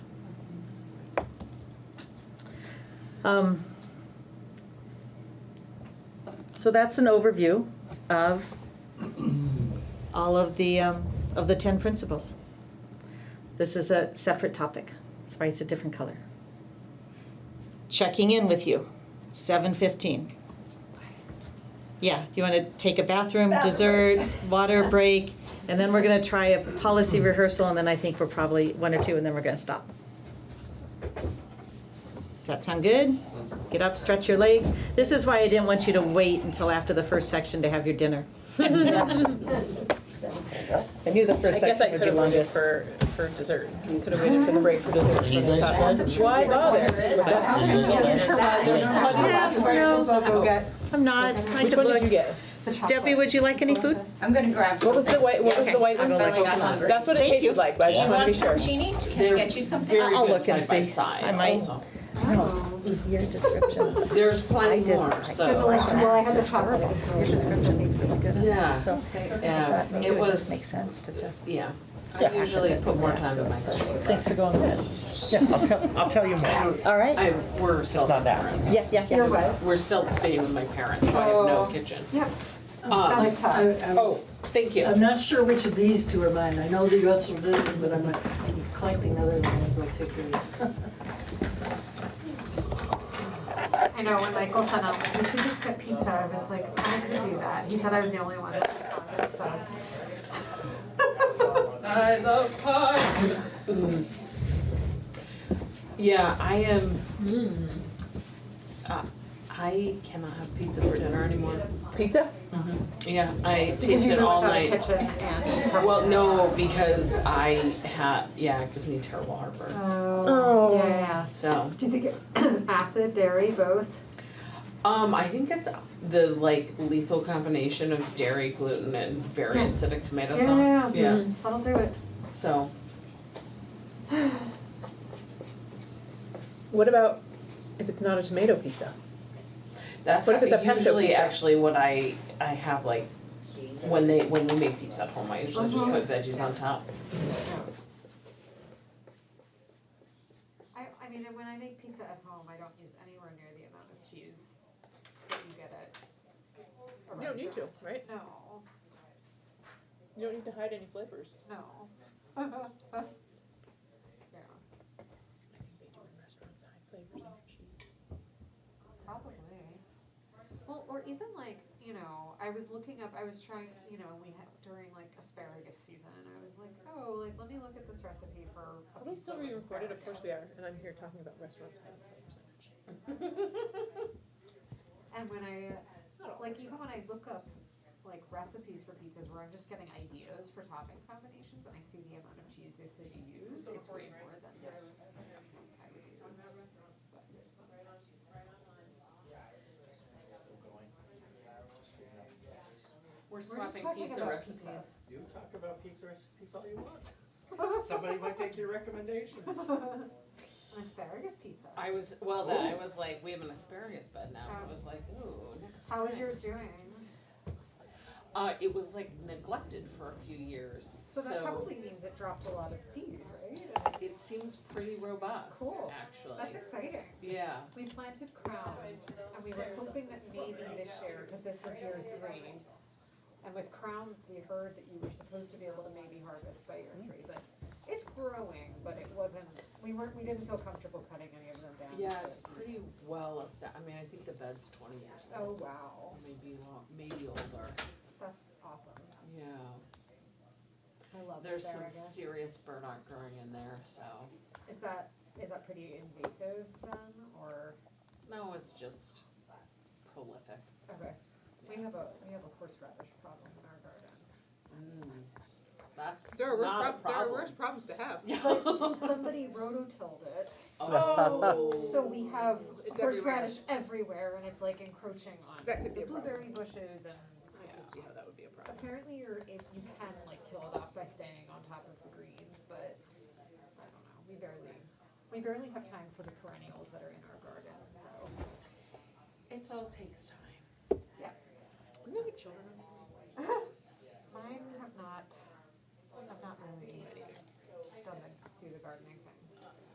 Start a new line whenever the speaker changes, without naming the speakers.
Um, So that's an overview of all of the, um, of the ten principles. This is a separate topic, that's why it's a different color. Checking in with you, seven fifteen. Yeah, you wanna take a bathroom,
Bathroom
dessert,
break.
water break, and then we're gonna try a policy rehearsal, and then I think we're probably one or two, and then we're gonna stop. Does that sound good? Get up, stretch your legs. This is why I didn't want you to wait until after the first section to have your dinner. uh, I knew the
I
first section
guess I
would
could
be
have waited
longest.
for, for dessert. Could have waited for the break for dessert.
you guys
Why bother?
I'm not, I
Which
could
one did you
look.
get?
Debbie, would you like any food?
I'm gonna grab
What was the white, what was the white?
I'm
one?
feeling I'm hungry.
That's what it
Thank
tasted
you.
like, but I
Do
just
you
want to be sure.
Chini? Can
They're
I get you something?
very
I'll
good
look and
side by
see.
side
I might.
also.
Your description.
There's plenty more,
They're
so,
delicious. Well, I had this problem. Your description is really good.
Yeah.
So
yeah,
maybe
it
it just makes
was,
sense to just.
yeah. I usually put more time in my cooking.
Thanks for going with
Yeah, I'll tell, I'll tell you more.
it. All right?
I, we're still
not
at my
that.
parents.
Yeah, yeah,
You're
yeah.
right.
We're still staying with my parents, so I have no kitchen.
Yep.
Um,
That's tough.
Oh, thank you.
I'm not sure which of these two are mine. I know the US are listed, but I'm I'm collecting other ones, I'll take yours.
I know, when Michael sent out, like, we should just get pizza, I was like, I could do that. He said I was the only one that responded, so.
I love pie.
Yeah, I am, hmm, uh, I cannot have pizza for dinner anymore. Mm-hmm.
Pizza?
Yeah, I
Because
tasted
you
it
go
all
without a
night.
kitchen and.
Well, no, because I had, yeah, it gives me terrible heartburn,
Oh, yeah, yeah, yeah.
so.
Do you think it- acid, dairy, both?
Um, I think it's the like lethal combination of dairy, gluten, and very
Yeah.
acidic tomato
Yeah,
sauce.
yeah, Mm-hmm. That'll do it.
So
What about if it's not a tomato pizza?
that's
What if it's a pesto
usually
pizza?
actually what I I have like when they when we make pizza at home. I usually just
Uh-huh.
put veggies on top.
I, I mean, when I make pizza at home, I don't use anywhere near the amount of cheese that you get at a
You don't need to,
restaurant.
right?
No,
You don't need to hide any flavors.
no. Yeah,
I think they do in restaurants, hide flavors in their cheese.
probably. Well, or even like, you know, I was looking up, I was trying, you know, we had, during like asparagus season, and I was like, oh, like, let me look at this recipe for a
Are we
pizza
still
with
being recorded? Of course
asparagus.
we are, and I'm here talking about restaurants hiding flavors in their cheese.
And when I, like, even when I look up, like, recipes for pizzas where I'm just getting ideas for topping combinations and I see the amount of cheese they say you use, it's way more than I would use.
We're
just swapping talking pizza about recipes. pizza.
You talk about pizza recipes all you want. Somebody might take your recommendations.
An asparagus pizza.
I was well then I was like we have an asparagus bed now, so I
Oh.
was like ooh next.
How is
spring.
yours doing?
Uh, it was like neglected for a few years,
So that probably means it dropped a lot of seed, right? And
it
it's-
seems pretty robust.
Cool.
Actually.
That's exciting.
yeah.
We planted crowns and we were hoping that maybe this year, because this is year three. And with crowns, we heard that you were supposed to be able to maybe harvest by year three, but it's growing, but it wasn't, we weren't, we didn't feel comfortable cutting any of them down.
Yeah,
but-
it's pretty well established. I mean, I think the bed's twenty years
Oh,
old,
wow,
maybe long, maybe older.
that's awesome.
Yeah,
I love
there's some
asparagus.
serious burdock growing in there, so
Is that, is that pretty invasive then, or,
no, it's just prolific.
okay, we have a, we have a horseradish problem in our garden.
Mm. That's
There are worse,
not a
prob- there are worse
problem.
problems to have.
But somebody rototilled it,
Oh.
So we have
It's
horseradish everywhere and it's like encroaching on
That could be
the
a problem.
blueberry bushes and
I can see how that would be a problem.
apparently you're, if you can like kill it off by staying on top of the greens, but I don't know, we barely, we barely have time for the perennials that are in our garden, so.
It all takes time.
Yeah.
Isn't that what children are?
Mine have not, have not really done the, do the gardening thing.